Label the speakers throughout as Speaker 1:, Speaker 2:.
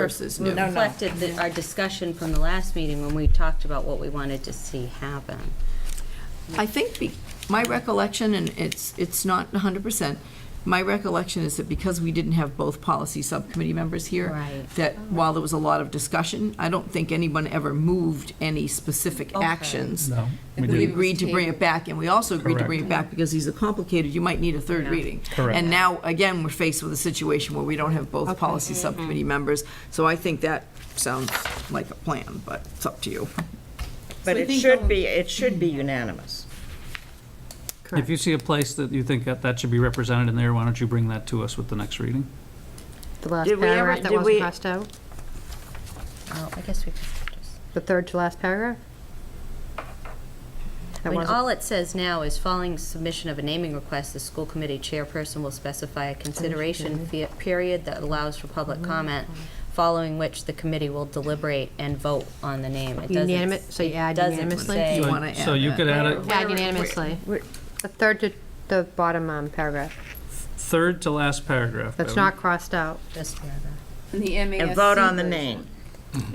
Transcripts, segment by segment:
Speaker 1: versus
Speaker 2: We
Speaker 1: new.
Speaker 2: reflected the- our discussion from the last meeting when we talked about what we wanted to see happen.
Speaker 1: I think, be- my recollection, and it's, it's not 100%, my recollection is that because we didn't have both policy subcommittee members here,
Speaker 2: Right.
Speaker 1: that while there was a lot of discussion, I don't think anyone ever moved any specific
Speaker 2: Okay.
Speaker 1: actions.
Speaker 3: No, we
Speaker 1: We
Speaker 3: didn't.
Speaker 1: agreed to bring it back, and we also agreed to bring it
Speaker 3: Correct.
Speaker 1: back because these are complicated, you might need a third
Speaker 2: Yeah.
Speaker 1: reading.
Speaker 3: Correct.
Speaker 1: And now, again, we're faced with a situation where we don't have both policy subcommittee members, so I think that sounds like a plan, but it's up to you.
Speaker 4: But
Speaker 5: So I
Speaker 4: it
Speaker 5: think
Speaker 4: should
Speaker 5: going-
Speaker 4: be, it should be unanimous.
Speaker 3: If you see a place that you think that that should be represented in there, why don't you bring that to us with the next reading?
Speaker 6: The last
Speaker 4: Did we ever-
Speaker 6: paragraph that
Speaker 4: did we-
Speaker 6: wasn't crossed out,
Speaker 2: Oh, I guess we could just.
Speaker 6: the third to last paragraph?
Speaker 2: I
Speaker 6: That
Speaker 2: mean,
Speaker 6: wasn't,
Speaker 2: all it says now is following submission of a naming request, the school committee chairperson will specify a consideration fe- period that allows for public comment, following which the committee will deliberate and vote on the name. It doesn't-
Speaker 6: Unanimous- so you add
Speaker 2: it doesn't
Speaker 6: unanimously?
Speaker 2: say-
Speaker 1: You
Speaker 3: So-
Speaker 1: wanna
Speaker 3: So
Speaker 1: add
Speaker 3: you
Speaker 1: that.
Speaker 3: could add a
Speaker 6: yeah, unanimously. The third to, the bottom um, paragraph,
Speaker 3: third to last paragraph
Speaker 6: that's
Speaker 3: Bevan,
Speaker 6: not crossed out.
Speaker 2: This paragraph.
Speaker 5: And the MASC.
Speaker 4: And vote on the
Speaker 5: version.
Speaker 4: name.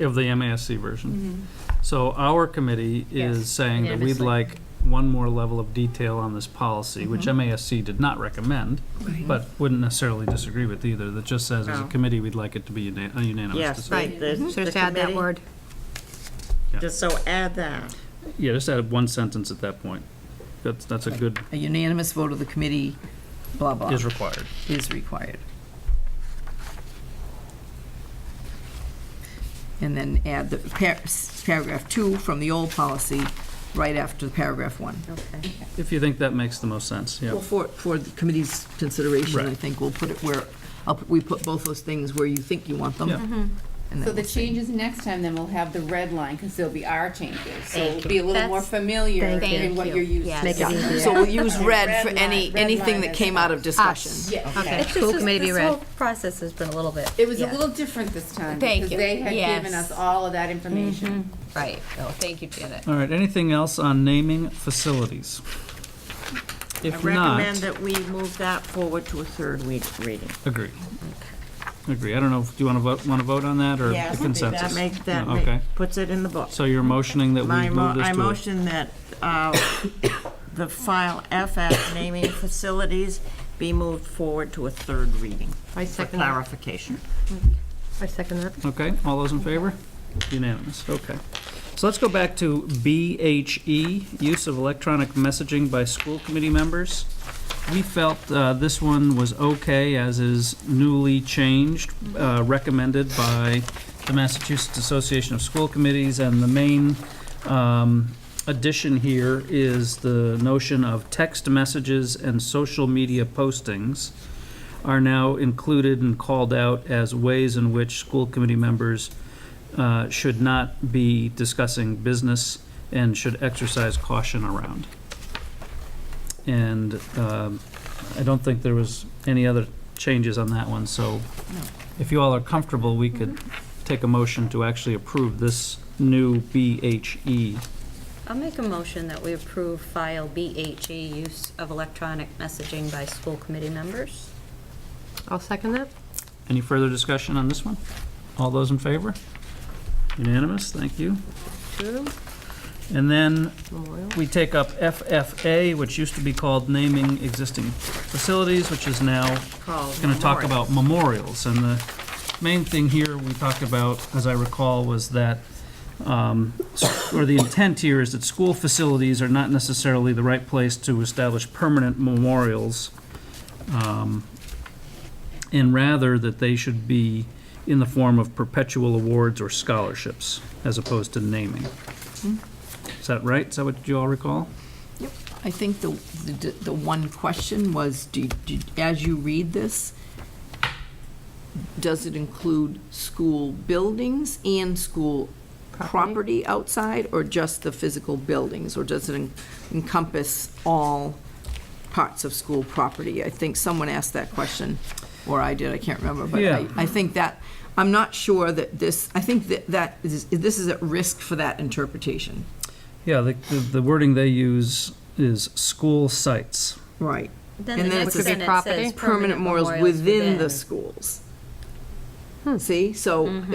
Speaker 3: of the MASC version. So our committee
Speaker 2: Yes,
Speaker 3: is saying that we'd
Speaker 2: unanimously.
Speaker 3: like one more level of detail on this policy, which MASC did not recommend, but wouldn't necessarily disagree with either, that just says as a
Speaker 4: No.
Speaker 3: committee, we'd like it to be una- a unanimous
Speaker 4: Yes.
Speaker 3: decision.
Speaker 4: the- the
Speaker 6: So just add that
Speaker 4: committee-
Speaker 6: word.
Speaker 4: Just so add that.
Speaker 3: Yeah, just add one sentence at that point. That's, that's a good,
Speaker 1: A unanimous vote of the committee, blah, blah,
Speaker 3: is required.
Speaker 1: is required. And then add the par- paragraph two from the old policy, right after the paragraph one.
Speaker 2: Okay.
Speaker 3: If you think that makes the most sense, yeah.
Speaker 1: Well, for, for the committee's consideration, I
Speaker 3: Right.
Speaker 1: think we'll put it where, I'll put- we put both those things where you think you want them.
Speaker 3: Yeah.
Speaker 1: and
Speaker 5: So
Speaker 1: then
Speaker 5: the
Speaker 1: we'll see.
Speaker 5: changes next time, then we'll have the red line, because there'll be our changes. So
Speaker 2: Thank
Speaker 5: it'll
Speaker 2: you.
Speaker 5: be a little more
Speaker 2: That's-
Speaker 5: familiar
Speaker 2: thank
Speaker 5: in
Speaker 2: you.
Speaker 5: what you're used
Speaker 2: Yes.
Speaker 5: to.
Speaker 2: Make it
Speaker 5: Yeah.
Speaker 2: easier.
Speaker 1: So we'll use red for
Speaker 5: Red
Speaker 1: any,
Speaker 5: line- red
Speaker 1: anything
Speaker 5: line
Speaker 1: that
Speaker 5: is
Speaker 1: came out of discussion.
Speaker 5: Yeah.
Speaker 6: Okay,
Speaker 2: It's
Speaker 6: school
Speaker 2: just,
Speaker 6: committee
Speaker 2: this
Speaker 6: read.
Speaker 2: whole process has been a little bit.
Speaker 5: It was a
Speaker 2: yeah,
Speaker 5: little different this time.
Speaker 7: Thank you.
Speaker 5: Because they had given
Speaker 7: Yes.
Speaker 5: us all of that information.
Speaker 7: Right, oh, thank you, Janet.
Speaker 3: All right, anything else on naming facilities?
Speaker 4: I
Speaker 3: If
Speaker 4: recommend
Speaker 3: not,
Speaker 4: that we move that forward to a third week reading.
Speaker 3: agree. Agree. I don't know, if- do you want to vote, want to vote on that or the
Speaker 4: That
Speaker 3: consensus?
Speaker 4: make, that
Speaker 3: No,
Speaker 4: make-
Speaker 3: Okay,
Speaker 4: puts it in the book.
Speaker 3: so you're motioning that
Speaker 4: My
Speaker 3: we
Speaker 4: mo-
Speaker 3: move
Speaker 4: I
Speaker 3: this to
Speaker 4: motion that uh, the file FF naming facilities be moved forward to a third reading
Speaker 6: I
Speaker 4: for
Speaker 6: second that,
Speaker 4: clarification.
Speaker 6: I second that.
Speaker 3: a, okay, all those in favor? Unanimous, okay. So let's go back to BHE, use of electronic messaging by school committee members. We felt uh, this one was okay, as is newly changed, uh, recommended by the Massachusetts Association of School Committees, and the main um, addition here is the notion of text messages and social media postings are now included and called out as ways in which school committee members uh, should not be discussing business and should exercise caution around. And um, I don't think there was any other changes on that one, so if you all are comfortable, we could take a motion to actually approve this new E BHE.
Speaker 2: I'll make a motion that we approve file BHE, use of electronic messaging by school committee members.
Speaker 6: I'll second that.
Speaker 3: Any further discussion on this one? All those in favor? Unanimous, thank you.
Speaker 2: True.
Speaker 3: And then
Speaker 6: Memorial.
Speaker 3: we take up FFA, which used to be called naming existing facilities, which is now going to talk about memorials. And the main thing here we talked about, as I recall, was that, um, s- or the intent here is that school facilities are not necessarily the right place to establish permanent memorials, um, and rather that they should be in the form of perpetual awards or scholarships, as opposed to naming. Is that right? Is that what you all recall?
Speaker 1: I think the, the, the one question was, do, do, as you read this, does it include school buildings and school property outside, or just the physical buildings? Or does it en- encompass all parts of school property? I think someone asked that question, or I did, I can't remember, but
Speaker 3: Yeah.
Speaker 1: I, I think that, I'm not sure that this, I think that, that, is- this is at risk for that interpretation.
Speaker 3: Yeah, the, the- the wording they use is school sites.
Speaker 1: Right.
Speaker 2: Then
Speaker 1: And
Speaker 2: the
Speaker 1: then it
Speaker 2: next
Speaker 1: could be
Speaker 2: sentence
Speaker 6: property?
Speaker 2: says
Speaker 1: Hmm. permanent memorials within the schools. See, so